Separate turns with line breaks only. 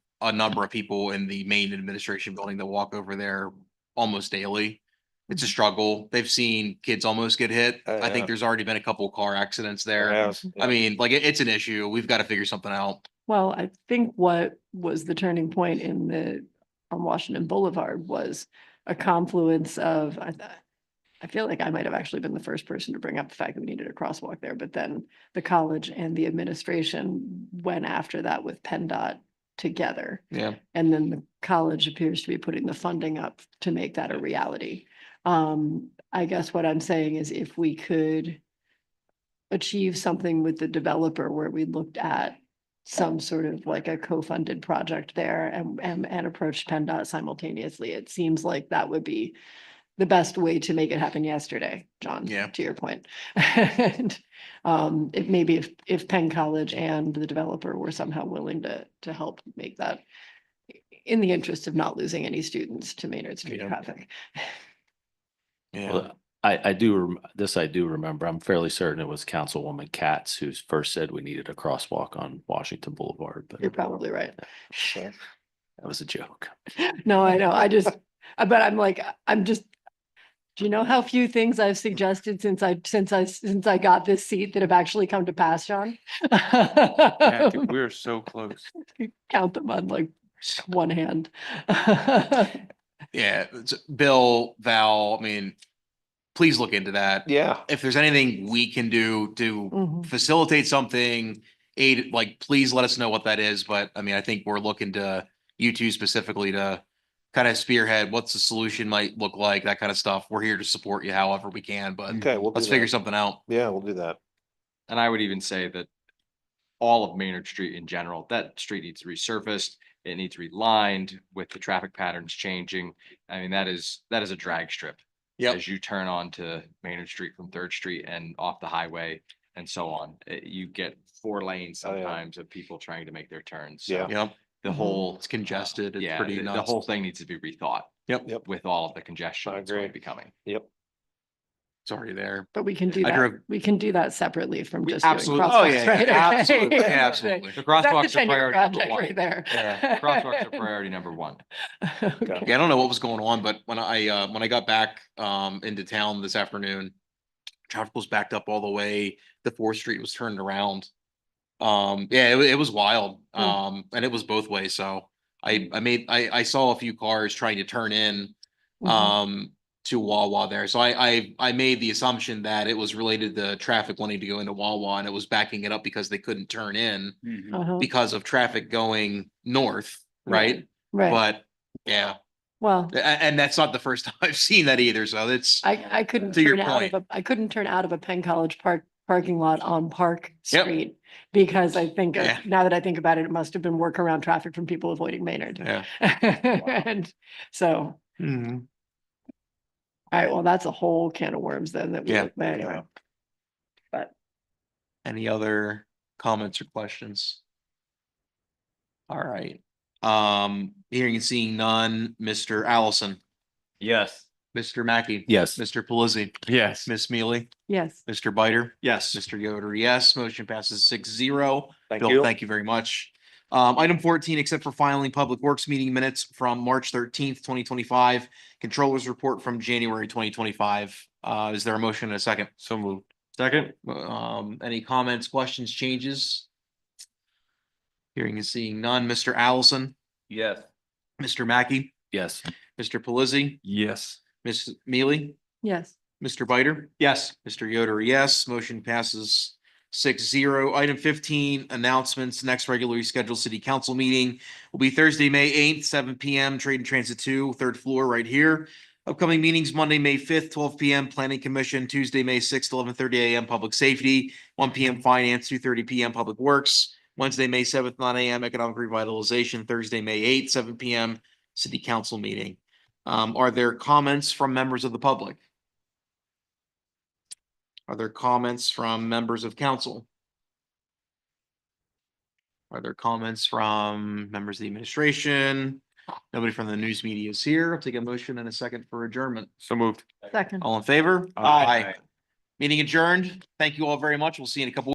a number of people in the main administration building that walk over there almost daily. It's a struggle. They've seen kids almost get hit.
Mm-hmm. Oh,
I
yeah.
think there's already been a couple of car accidents there.
Yes,
I mean, like, it- it's an issue. We've got to figure something out.
Well, I think what was the turning point in the, on Washington Boulevard was a confluence of, I thought. I feel like I might have actually been the first person to bring up the fact that we needed a crosswalk there, but then the college and the administration went after that with PennDOT together.
Yeah.
And then the college appears to be putting the funding up to make that a reality. Um, I guess what I'm saying is if we could achieve something with the developer where we looked at some sort of like a co-funded project there and, and, and approached PennDOT simultaneously, it seems like that would be the best way to make it happen yesterday, John.
Yeah.
To your point. And, um, it maybe if, if Penn College and the developer were somehow willing to, to help make that in the interest of not losing any students to Maynard Street
Yeah.
traffic.
Yeah.
Well, I, I do, rem- this I do remember. I'm fairly certain it was Councilwoman Katz who first said we needed a crosswalk on Washington Boulevard, but
You're
that
probably right.
was a joke.
No, I know. I just, I- but I'm like, I'm just, do you know how few things I've suggested since I, since I, since I got this seat that have actually come to pass, John?
yeah, dude, we were so close.
Count them on like one hand.
Yeah, it's- Bill, Val, I mean, please look into that.
Yeah.
If there's anything we can do to
Mhm.
facilitate something, aid, like, please let us know what that is. But I mean, I think we're looking to you two specifically to kind of spearhead what's the solution might look like, that kind of stuff. We're here to support you however we can, but
Okay, we'll.
let's
do that.
figure something out.
Yeah, we'll do that.
And I would even say that all of Maynard Street in general, that street needs resurfaced. It needs relined with the traffic patterns changing. I mean, that is, that is a drag strip.
Yep.
As you turn on to Maynard Street from Third Street and off the highway and so on, Eh, you get four lanes
Oh, yeah.
sometimes of people trying to make their turns.
Yeah.
So
You know,
The
Mhm.
whole.
It's congested,
uh,
it's
yeah,
pretty
the- The
nuts.
whole thing needs to be rethought.
Yep.
Yep.
With all of the congestion
I
that's going to
agree.
be coming.
Yep.
it's already there.
But we can do
I
that.
drove-
We can do that separately from
We
just doing
Absolutely. Oh, yeah,
crosswalks,
yeah,
right?
Absolutely.
Okay.
yeah, Absolutely.
The
That's
crosswalks
a
are
ten-year
priority
project
number one.
right there.
Yeah, Crosswalks are priority number one.
Okay.
Yeah, I don't know what was going on, but when I, uh, when I got back, um, into town this afternoon, traffic was backed up all the way, the Fourth Street was turned around. Um, yeah, it, wa- it was wild,
Hmm.
um, and it was both ways, so I, I made, I, I saw a few cars trying to turn in,
Mhm.
um, to Wawa there, so I, I, I made the assumption that it was related to traffic wanting to go into Wawa, and it was backing it up because they couldn't turn in
Mm-hmm.
Uh-huh.
because of traffic going north,
Right.
right?
Right.
But, yeah,
Well,
a- and that's not the first time I've seen that either, so it's,
I, I couldn't
To your
turn out of a, I couldn't turn out of a Penn College Park parking lot on Park
Yep.
Street. Because I think, of-
Yeah.
now that I think about it, it must have been workaround traffic from people avoiding Maynard.
yeah.
And so, all right, well, that's a whole can of worms then that we,
Yeah.
but anyway.
Any other comments or questions? All right, um, hearing and seeing none, Mr. Allison,
Yes.
Mr. Mackey.
Yes.
Mr. Pelisi,
Yes.
Miss Mealy,
Yes,
Mr. Biter,
Yes.
Mr. Yoder, yes, motion passes six zero.
Thank
Bill,
you.
thank you very much. Um, item fourteen, except for filing public works meeting minutes from March thirteenth, twenty twenty-five, controllers report from January twenty twenty-five. Uh, is there a motion and a second?
So moved.
Second. Um, any comments, questions, changes? Hearing and seeing none. Mr. Allison,
Yes.
Mr. Mackey,
Yes.
Mr. Pelisi,
Yes.
Ms. Mealy,
yes.
Mr. Biter. Yes. Mr. Yoder, yes. Motion passes six zero. Item fifteen, announcements. Next regularly scheduled city council meeting will be Thursday, May eighth, seven P M, Trade and Transit Two, third floor right here. Upcoming meetings, Monday, May fifth, twelve P M, Planning Commission, Tuesday, May sixth, eleven thirty A M, Public Safety, one P M, Finance, two thirty P M, Public Works, Wednesday, May seventh, nine A M, Economic Revitalization, Thursday, May eighth, seven P M, City Council meeting. Um, are there comments from members of the public? Are there comments from members of council? Are there comments from members of the administration? Nobody from the news media is here. I'll take a motion and a second for adjournment.
So moved.
Second.
All in favor?
Aye.
Meeting adjourned. Thank you all very much. We'll see you in a couple.